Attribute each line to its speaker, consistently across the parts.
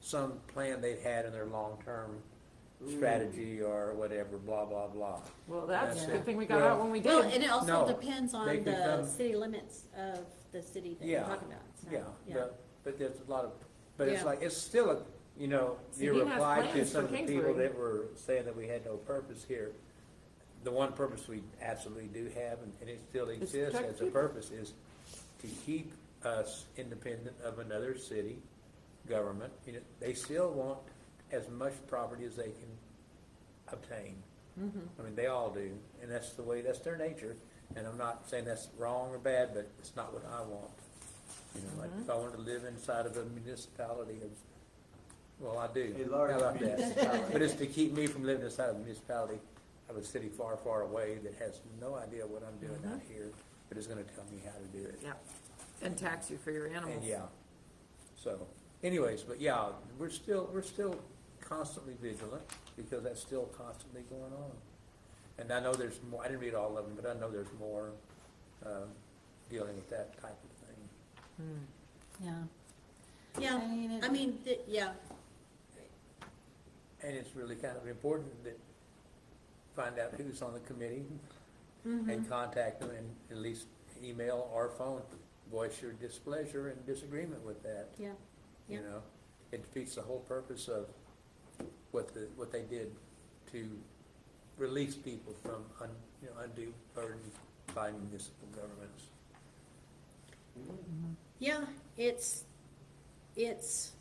Speaker 1: some plan they've had in their long-term strategy or whatever, blah, blah, blah.
Speaker 2: Well, that's a
Speaker 1: That's
Speaker 2: good
Speaker 1: it.
Speaker 2: thing we got out
Speaker 1: Well-
Speaker 2: when we
Speaker 3: Well,
Speaker 2: did.
Speaker 3: and it
Speaker 1: No,
Speaker 3: also depends
Speaker 1: they
Speaker 3: on
Speaker 1: could
Speaker 3: the
Speaker 1: come-
Speaker 3: city limits of the city that you're
Speaker 1: Yeah,
Speaker 3: talking about, so,
Speaker 1: Yeah,
Speaker 3: yeah.
Speaker 1: but, but there's a lot of, but it's
Speaker 3: Yeah.
Speaker 1: like, it's still a, you know,
Speaker 2: See,
Speaker 1: you
Speaker 2: he has
Speaker 1: replied to
Speaker 2: plans
Speaker 1: some
Speaker 2: for
Speaker 1: of the people
Speaker 2: Kingsbury.
Speaker 1: that were saying that we had no purpose here. The one purpose we absolutely do have, and, and it still
Speaker 2: It's
Speaker 1: exists
Speaker 2: protect
Speaker 1: as a
Speaker 2: people.
Speaker 1: purpose, is to keep us independent of another city government. You know, they still want as much property as they can obtain.
Speaker 2: Hmm.
Speaker 1: I mean, they all do, and that's the way, that's their nature, and I'm not saying that's wrong or bad, but it's not what I want. You know, like, if I wanted to live inside of a municipality of, well, I do.
Speaker 4: A large
Speaker 1: How about that?
Speaker 4: municipality.
Speaker 1: But it's to keep me from living inside of a municipality of a city far, far away that has no idea what I'm doing out here, but is gonna tell me how to do it.
Speaker 2: Yeah, and tax you for your animals.
Speaker 1: And yeah, so anyways, but yeah, we're still, we're still constantly vigilant because that's still constantly going on. And I know there's more, I didn't read all of them, but I know there's more, um, dealing with that type of thing.
Speaker 5: Yeah.
Speaker 3: Yeah,
Speaker 5: I mean, it-
Speaker 3: I mean, th- yeah,
Speaker 1: And it's really kind of important that find out who's on the committee
Speaker 3: mm-hmm.
Speaker 1: and contact them and at least email or phone, voice your displeasure and disagreement with that.
Speaker 3: yeah,
Speaker 1: You
Speaker 3: Yeah.
Speaker 1: know, it defeats the whole purpose of what the, what they did to release people from un, you know, undue burden by municipal governments.
Speaker 3: yeah, it's, it's,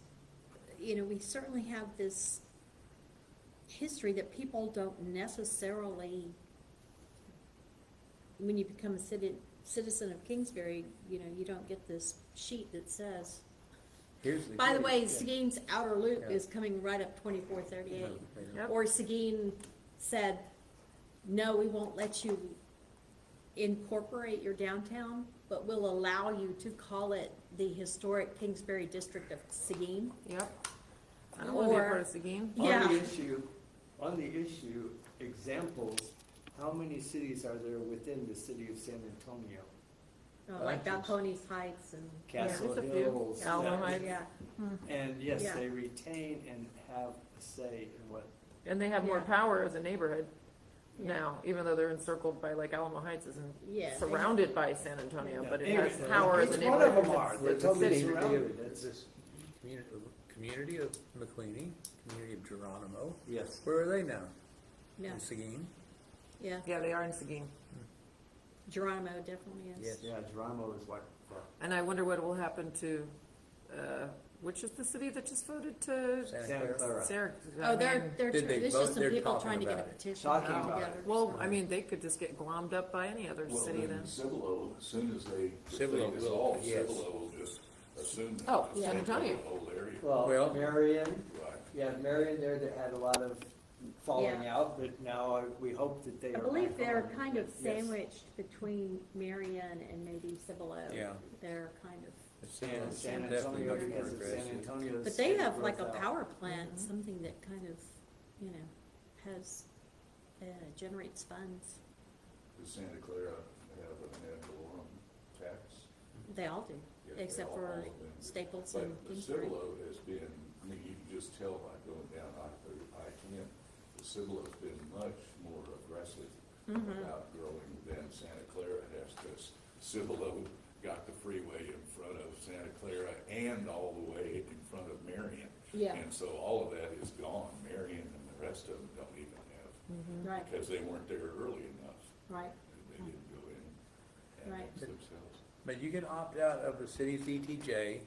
Speaker 3: you know, we certainly have this history that people don't necessarily, when you become a citi- citizen of Kingsbury, you know, you don't get this sheet that says,
Speaker 1: Here's the.
Speaker 3: by the way,
Speaker 1: yeah.
Speaker 3: Seguin's outer loop
Speaker 1: Yeah.
Speaker 3: is coming right up twenty-four
Speaker 1: You know,
Speaker 3: thirty-eight.
Speaker 1: they don't-
Speaker 2: Yep.
Speaker 3: Or Seguin said, no, we won't let you incorporate your downtown, but we'll allow you to call it the historic Kingsbury District of Seguin.
Speaker 2: Yep. I don't wanna be a
Speaker 3: Or-
Speaker 2: part of Seguin.
Speaker 4: On
Speaker 3: Yeah.
Speaker 4: the issue, on the issue, examples, how many cities are there within the city of San Antonio?
Speaker 1: Oh,
Speaker 3: Uh, Like
Speaker 4: Gotcha.
Speaker 3: Balcones Heights and,
Speaker 4: Castle
Speaker 2: There's a few.
Speaker 4: Hills.
Speaker 2: Alamo
Speaker 4: that-
Speaker 2: Heights.
Speaker 3: yeah,
Speaker 4: And yes,
Speaker 3: Yeah.
Speaker 4: they retain and have a say in what,
Speaker 2: And they have more
Speaker 3: Yeah.
Speaker 2: power as a neighborhood
Speaker 3: Yeah.
Speaker 2: now, even though they're encircled by like Alamo Heights isn't
Speaker 3: yeah. they-
Speaker 2: surrounded by San Antonio,
Speaker 4: Yeah.
Speaker 2: but it
Speaker 4: Anyway,
Speaker 2: has power as a
Speaker 4: each one of
Speaker 2: neighborhood.
Speaker 4: them are,
Speaker 1: We're
Speaker 4: they're
Speaker 1: the
Speaker 4: totally
Speaker 2: city.
Speaker 4: surrounded,
Speaker 1: It's
Speaker 4: It's-
Speaker 1: this community, community of McLeany, community of Geronimo.
Speaker 4: yes.
Speaker 1: Where are they now?
Speaker 3: Yeah,
Speaker 1: In Seguin?
Speaker 3: yeah,
Speaker 2: Yeah, they are in Seguin.
Speaker 3: Geronimo definitely is.
Speaker 1: Yes.
Speaker 4: Yeah, Geronimo is like, well,
Speaker 2: And I wonder what will happen to, uh, which is the city that just voted to
Speaker 4: Santa Clara.
Speaker 2: Sarah.
Speaker 3: Oh, they're, they're,
Speaker 1: Did they
Speaker 3: there's
Speaker 1: vote?
Speaker 3: just some
Speaker 1: They're
Speaker 3: people
Speaker 1: talking
Speaker 3: trying to get a
Speaker 1: about it.
Speaker 3: petition
Speaker 4: Talking
Speaker 3: put
Speaker 4: about it.
Speaker 3: together.
Speaker 2: Well, I mean, they could just get glommed up by any other
Speaker 6: Well,
Speaker 2: city then.
Speaker 6: Cibolo, as soon as they, if they
Speaker 1: Cibolo will,
Speaker 6: dissolve,
Speaker 1: yes.
Speaker 6: Cibolo will just assume. that
Speaker 2: Oh,
Speaker 6: it's
Speaker 2: San
Speaker 6: taken over
Speaker 2: Antonio.
Speaker 6: the Whole area,
Speaker 1: Well-
Speaker 4: Well, Marion,
Speaker 6: right.
Speaker 4: you have Marion there that had a lot of falling out, but now I- we hope that they
Speaker 3: I
Speaker 4: are.
Speaker 3: believe
Speaker 4: back
Speaker 3: they're
Speaker 4: on.
Speaker 3: kind of
Speaker 4: Yes.
Speaker 3: sandwiched between Marion and maybe Cibolo.
Speaker 1: Yeah.
Speaker 3: They're kind of.
Speaker 4: And San
Speaker 1: Definitely much
Speaker 4: Antonio,
Speaker 1: more
Speaker 4: because of San
Speaker 1: aggressive.
Speaker 4: Antonio's.
Speaker 3: But they have like a
Speaker 4: growth out.
Speaker 3: power plant,
Speaker 6: Mm-hmm.
Speaker 3: something that kind of, you know, has, uh, generates funds.
Speaker 6: Does Santa Clara have an ad valorem tax?
Speaker 3: They all do,
Speaker 6: Mm-hmm. Yeah, they
Speaker 3: except
Speaker 6: all- all
Speaker 3: for
Speaker 6: of them.
Speaker 3: Staples and
Speaker 6: But the
Speaker 3: Kingsbury.
Speaker 6: Cibolo has been, I mean, you can just tell by going down I, I ten, the Cibolo's been much more aggressive
Speaker 3: Mm-hmm.
Speaker 6: about growing than Santa Clara has, because Cibolo got the freeway in front of Santa Clara and all the way in front of Marion.
Speaker 3: Yeah.
Speaker 6: And so all of that is gone, Marion and the rest of them don't even have,
Speaker 3: Right,
Speaker 6: because they weren't there early enough,
Speaker 3: right,
Speaker 6: they didn't go in and
Speaker 3: Right.
Speaker 6: fix themselves.
Speaker 1: But you can opt out of the city's ETJ.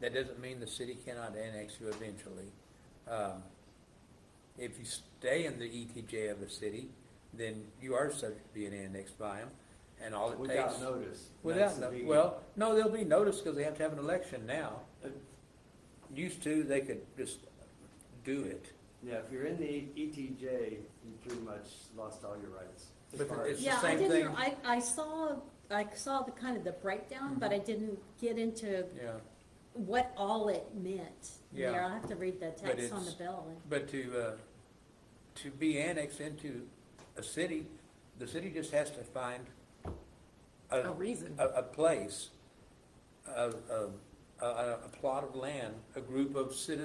Speaker 1: That doesn't mean the city cannot annex you eventually. Um, If you stay in the ETJ of the city, then you are subject to being annexed by them, and all it takes.
Speaker 4: Without notice.
Speaker 1: Without,
Speaker 4: That's the
Speaker 1: no-
Speaker 4: big-
Speaker 1: well, no, there'll be notice because they have to have an election now.
Speaker 4: Uh,
Speaker 1: Used to, they could just do it.
Speaker 4: Yeah, if you're in the ETJ, you pretty much lost all your rights. as
Speaker 1: But
Speaker 4: far as-
Speaker 1: It's the
Speaker 3: yeah, I
Speaker 1: same
Speaker 3: didn't,
Speaker 1: thing.
Speaker 3: I, I saw, I saw the kind of the breakdown, but I
Speaker 6: Mm-hmm.
Speaker 3: didn't get into
Speaker 1: Yeah.
Speaker 3: what all it meant.
Speaker 1: Yeah.
Speaker 3: There, I'll have to read the text on the
Speaker 1: it's-
Speaker 3: bill.
Speaker 1: But to, uh, to be annexed into a city, the city just has to find
Speaker 2: A
Speaker 1: a,
Speaker 2: reason.
Speaker 1: a, a place, a, a, a, a plot of land, a group of citizens